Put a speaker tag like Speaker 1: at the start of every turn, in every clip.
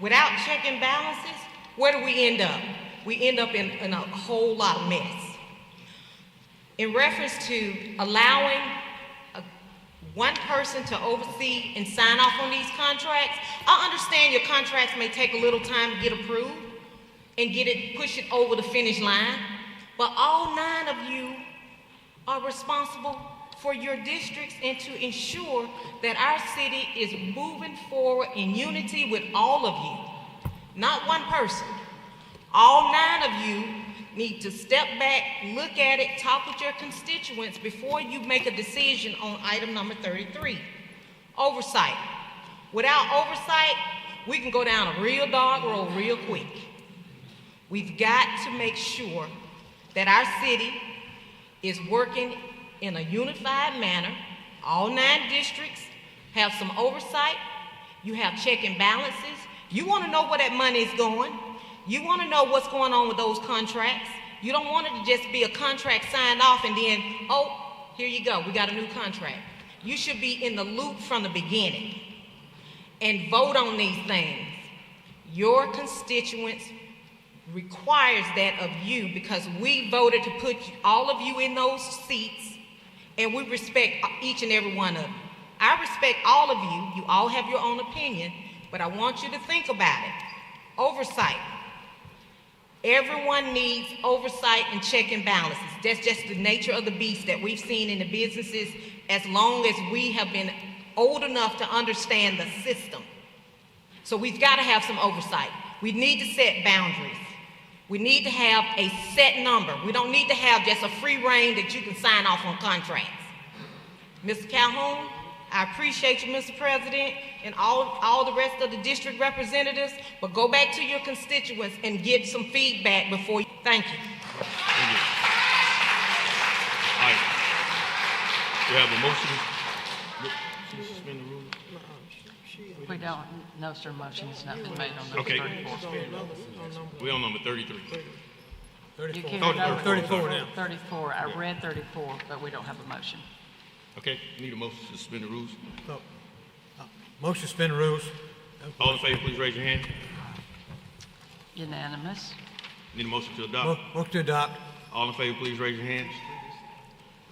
Speaker 1: without check and balances, where do we end up? We end up in, in a whole lot of mess. In reference to allowing a- one person to oversee and sign off on these contracts, I understand your contracts may take a little time to get approved and get it, push it over the finish line, but all nine of you are responsible for your districts and to ensure that our city is moving forward in unity with all of you, not one person. All nine of you need to step back, look at it, talk with your constituents before you make a decision on item number 33. Oversight. Without oversight, we can go down a real dark road real quick. We've got to make sure that our city is working in a unified manner. All nine districts have some oversight. You have check and balances. You want to know where that money is going. You want to know what's going on with those contracts. You don't want it to just be a contract signed off and then, oh, here you go, we got a new contract. You should be in the loop from the beginning and vote on these things. Your constituents requires that of you because we voted to put all of you in those seats and we respect each and every one of you. I respect all of you. You all have your own opinion, but I want you to think about it. Oversight. Everyone needs oversight and check and balances. That's just the nature of the beast that we've seen in the businesses as long as we have been old enough to understand the system. So we've got to have some oversight. We need to set boundaries. We need to have a set number. We don't need to have just a free reign that you can sign off on contracts. Mr. Calhoun, I appreciate you, Mr. President, and all, all the rest of the district representatives, but go back to your constituents and get some feedback before you, thank you.
Speaker 2: All right. We have a motion. to Suspend the rules.
Speaker 3: We don't, no, sir, motion's not been made on number
Speaker 2: Okay.
Speaker 3: 34.
Speaker 2: We on number thirty-three.
Speaker 3: You can
Speaker 2: Thirty- thirty-four
Speaker 3: now. 34, I read 34, but we don't have a motion.
Speaker 2: Okay, need a motion to suspend the rules.
Speaker 4: So, uh, Motion to suspend the rules.
Speaker 2: All in favor, please raise your hand.
Speaker 3: Unanimous,
Speaker 2: Need a motion to
Speaker 4: Mo-
Speaker 2: adopt.
Speaker 4: Motion to adopt.
Speaker 2: All in favor, please raise your hand.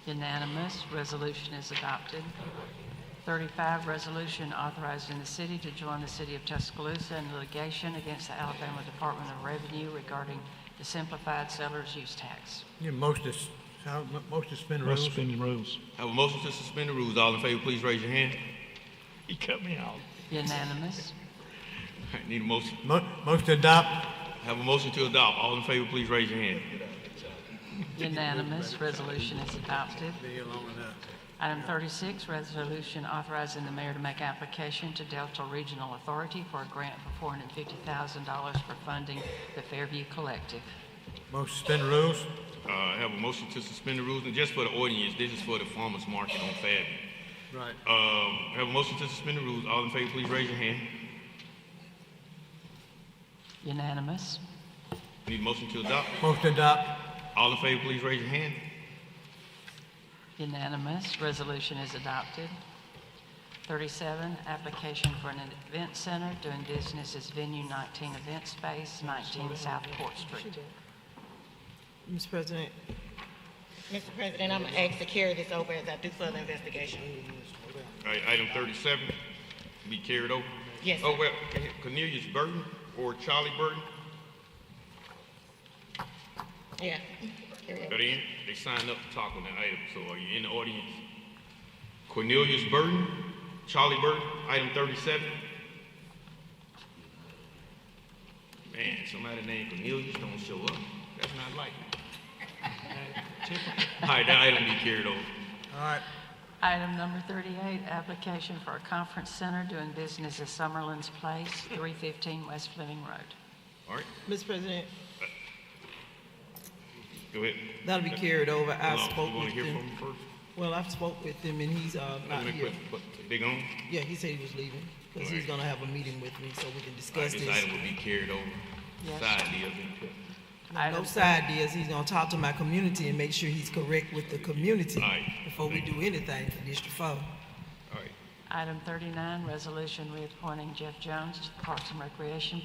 Speaker 3: unanimous, resolution is adopted. 35, resolution authorizing the city to join the city of Tuscaloosa in litigation against the Alabama Department of Revenue regarding the simplified seller's use tax.
Speaker 4: Need a motion to, s- uh, mo- motion to suspend the rules.
Speaker 5: Suspending rules.
Speaker 2: Have a motion to suspend the rules. All in favor, please raise your hand.
Speaker 5: He cut me out.
Speaker 3: Unanimous,
Speaker 2: All right, Need a motion.
Speaker 4: Mo- Motion to adopt.
Speaker 2: Have a motion to adopt. All in favor, please raise your hand.
Speaker 3: unanimous, resolution is adopted. Item 36, resolution authorizing the mayor to make application to Delta Regional Authority for a grant for $450,000 for funding the Fairview Collective.
Speaker 4: Motion to suspend the rules.
Speaker 2: Uh, have a motion to suspend the rules, and just for the audience, this is for the farmers market on Fairview.
Speaker 4: Right.
Speaker 2: Um, have a motion to suspend the rules. All in favor, please raise your hand.
Speaker 3: Unanimous,
Speaker 2: Need a motion to adopt.
Speaker 4: Motion to adopt.
Speaker 2: All in favor, please raise your hand.
Speaker 3: unanimous, resolution is adopted. 37, application for an event center doing business as Venue 19 Event Space, 19 South Court Street.
Speaker 6: Mr. President,
Speaker 7: Mr. President, I'm gonna ask to carry this over as I do further investigation.
Speaker 2: All right, item thirty-seven, be carried over.
Speaker 7: Yes, sir.
Speaker 2: Oh, well, Cornelius Burton or Charlie Burton,
Speaker 7: Yeah. Carry it.
Speaker 2: are they in? They signed up to talk on that item, so are you in the audience? Cornelius Burton, Charlie Burton, item thirty-seven. Man, somebody named Cornelius don't show up, that's not likely. All right, that item be carried over.
Speaker 4: All right.
Speaker 3: Item number 38, application for a conference center doing business as Summerlin's Place, 315 West Fleming Road.
Speaker 2: All right,
Speaker 6: Mr. President,
Speaker 2: go ahead.
Speaker 6: that'll be carried over. I
Speaker 2: Hold on,
Speaker 6: spoke
Speaker 2: You wanna
Speaker 6: with
Speaker 2: hear from
Speaker 6: him.
Speaker 2: him first?
Speaker 6: Well, I've spoke with him and he's, uh,
Speaker 2: Let
Speaker 6: not
Speaker 2: me
Speaker 6: here.
Speaker 2: quit, but they gone?
Speaker 6: Yeah, he said he was leaving, cause he's
Speaker 2: Alright.
Speaker 6: gonna have a meeting with me so we can
Speaker 2: All right,
Speaker 6: discuss
Speaker 2: This
Speaker 6: this.
Speaker 2: item will be carried over.
Speaker 3: Yes.
Speaker 2: Side deal. All
Speaker 6: No side deals. He's gonna talk to my community and make sure he's correct with the community
Speaker 2: Alright.
Speaker 6: before we do anything for District Four.
Speaker 2: right.
Speaker 3: Item 39, resolution reappointing Jeff Jones to the Parks and Recreation